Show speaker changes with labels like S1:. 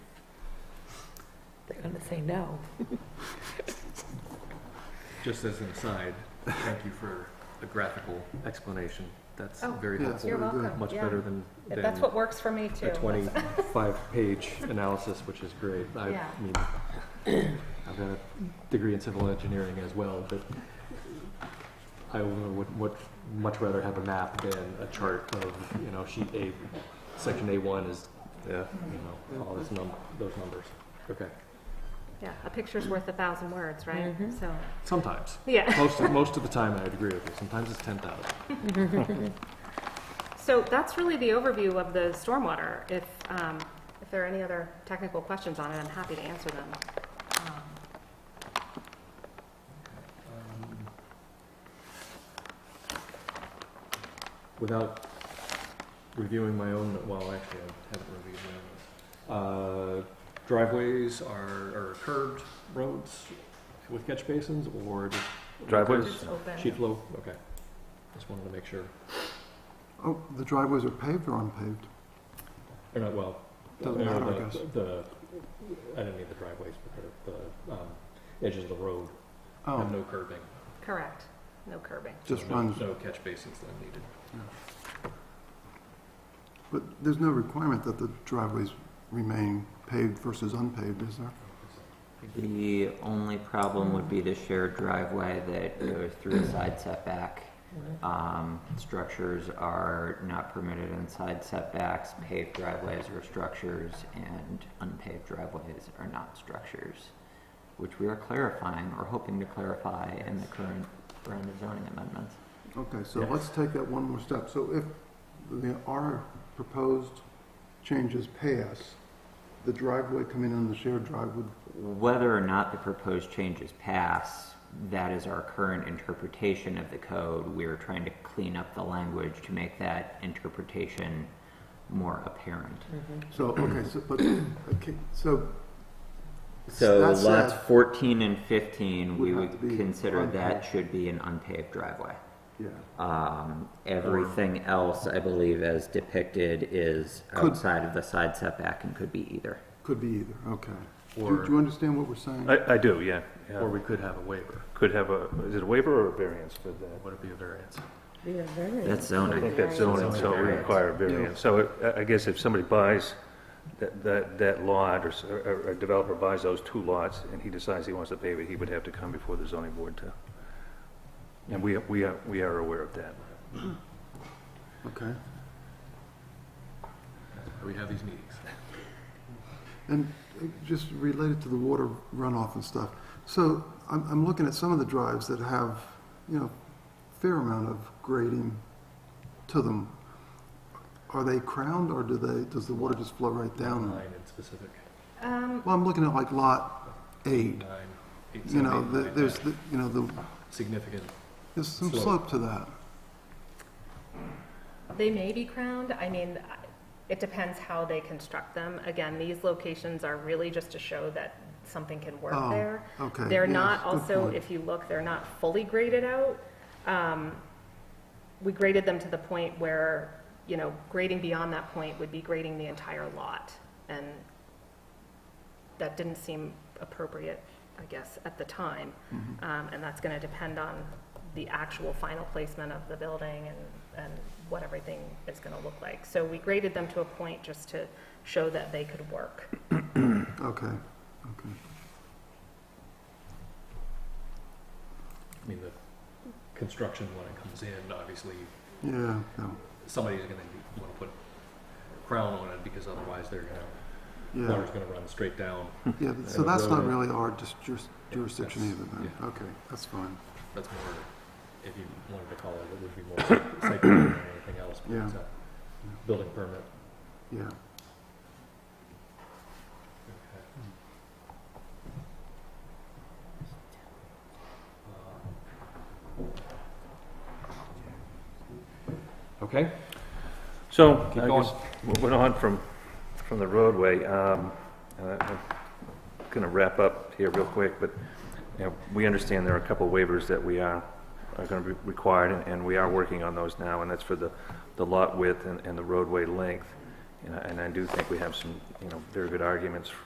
S1: They're gonna say no.
S2: Just as an aside, thank you for the graphical explanation. That's
S3: Oh,
S2: very
S3: Yeah.
S2: helpful.
S3: You're
S2: Very good.
S3: welcome.
S2: Much
S3: Yeah.
S2: better than,
S3: But That's what
S2: than
S3: works for me
S2: a
S3: too.
S2: twenty-five page analysis, which is great. I
S3: Yeah.
S2: mean, I've got a degree in civil engineering as well, but I would, would much rather have a map than a chart of, you know, sheet A, section A one is,
S4: Yeah.
S2: you know, all this num, those numbers. Okay,
S3: Yeah, a picture's worth a thousand words, right?
S1: Mhm.
S3: So,
S2: sometimes.
S3: yeah.
S2: Most, most of the time I'd agree with you. Sometimes it's ten thousand.
S3: So that's really the overview of the stormwater. If, um, if there are any other technical questions on it, I'm happy to answer them. Um,
S2: Um, without reviewing my own, well, actually, I haven't reviewed my own. notes. Uh, driveways are, are curved roads with catch basins or just?
S4: Driveways.
S3: Just
S2: Sheet
S3: open.
S2: flow, okay. Just wanted to make sure.
S5: Oh, the driveways are paved or unpaved?
S2: Or not, well.
S5: Doesn't
S2: or
S5: matter, I
S2: the-
S5: guess.
S2: The, I don't need the driveways, but the, um, edges of the road have
S5: Oh,
S2: no curving.
S3: Correct. No curbing.
S5: just
S2: No-
S5: runs,
S2: No catch basins then needed.
S5: but there's no requirement that the driveways remain paved versus unpaved, is there?
S6: The only problem would be the shared driveway that goes through a side setback.
S1: Mm-hmm.
S6: Um, structures are not permitted in side setbacks, paved driveways are structures, and unpaved driveways are not structures, which we are clarifying, or hoping to clarify in the current round of zoning amendments.
S5: Okay, so
S2: Yes.
S5: let's take that one more step. So if the, our proposed changes pass, the driveway coming in the shared drive would,
S6: Whether or not the proposed changes pass, that is our current interpretation of the code. We are trying to clean up the language to make that interpretation more apparent.
S1: Mm-hmm.
S5: so, okay, so, but, okay, so.
S6: So
S5: that
S6: lots
S5: said-
S6: fourteen and fifteen, we
S5: Would have
S6: would
S5: to be
S6: consider that
S5: unpaved.
S6: should be an unpaved driveway.
S5: Yeah,
S6: Um, everything else, I believe, as depicted, is
S5: Could-
S6: outside of the side setback and could be either.
S5: could be either, okay. Do
S2: Or,
S5: do you understand what we're saying?
S4: I, I do, yeah. yeah.
S2: or we could have a waiver.
S4: Could have a, is it a waiver or a variance for that?
S2: Would it be a variance?
S6: That's
S4: I
S6: zoning.
S4: think that's zoning, so it would require a variance. So it- I- I guess if somebody buys that, that, that lot, or s- or a developer buys those two lots, and he decides he wants to pave it, he would have to come before the zoning board to, and we, we are, we are aware of that.
S5: Okay.
S2: We have these meetings.
S5: And just related to the water runoff and stuff, so I'm, I'm looking at some of the drives that have, you know, fair amount of grading to them. Are they crowned or do they, does the water just flow right down?
S2: Nine in specific.
S3: Um,
S5: Well, I'm looking at like lot eight,
S2: Nine, eight,
S5: you
S2: seven,
S5: know,
S2: eight,
S5: the-
S2: nine,
S5: there's,
S2: ten.
S5: the- you know, the,
S2: significant.
S5: there's some
S2: Slope.
S5: slope to that.
S3: They may be crowned. I mean, I- it depends how they construct them. Again, these locations are really just to show that something can work
S5: Oh,
S3: there.
S5: okay,
S3: They're
S5: yes,
S3: not
S5: good
S3: also,
S5: point.
S3: if you look, they're not fully graded out. Um, We graded them to the point where, you know, grading beyond that point would be grading the entire lot. And that didn't seem appropriate, I guess, at the time.
S5: Mm-hmm.
S3: Um, And that's going to depend on the actual final placement of the building and, and what everything is going to look like. So we graded them to a point just to show that they could work.
S5: Okay, okay.
S2: I mean, the construction when it comes in, obviously,
S5: Yeah, no,
S2: somebody's gonna wanna put crown on it because otherwise they're gonna,
S5: yeah,
S2: water's gonna run straight down.
S5: yeah,
S2: I
S5: so
S2: don't
S5: that's
S2: know
S5: not
S2: that-
S5: really our dis- juris- jurisdiction
S2: that's-
S5: either then.
S2: yeah.
S5: Okay, that's fine.
S2: That's more, if you wanted to call it, it would be more site plan than anything else, but it's
S5: Yeah.
S2: a building permit.
S5: Yeah,
S2: Okay,
S4: So,
S2: Keep
S4: I
S2: going.
S4: guess, moving on from, from the roadway, um, uh, I'm gonna wrap up here real quick, but, you know, we understand there are a couple waivers that we are, are gonna be required, and- and we are working on those now, and that's for the, the lot width and, and the roadway length. And I, and I do think we have some, you know, very good arguments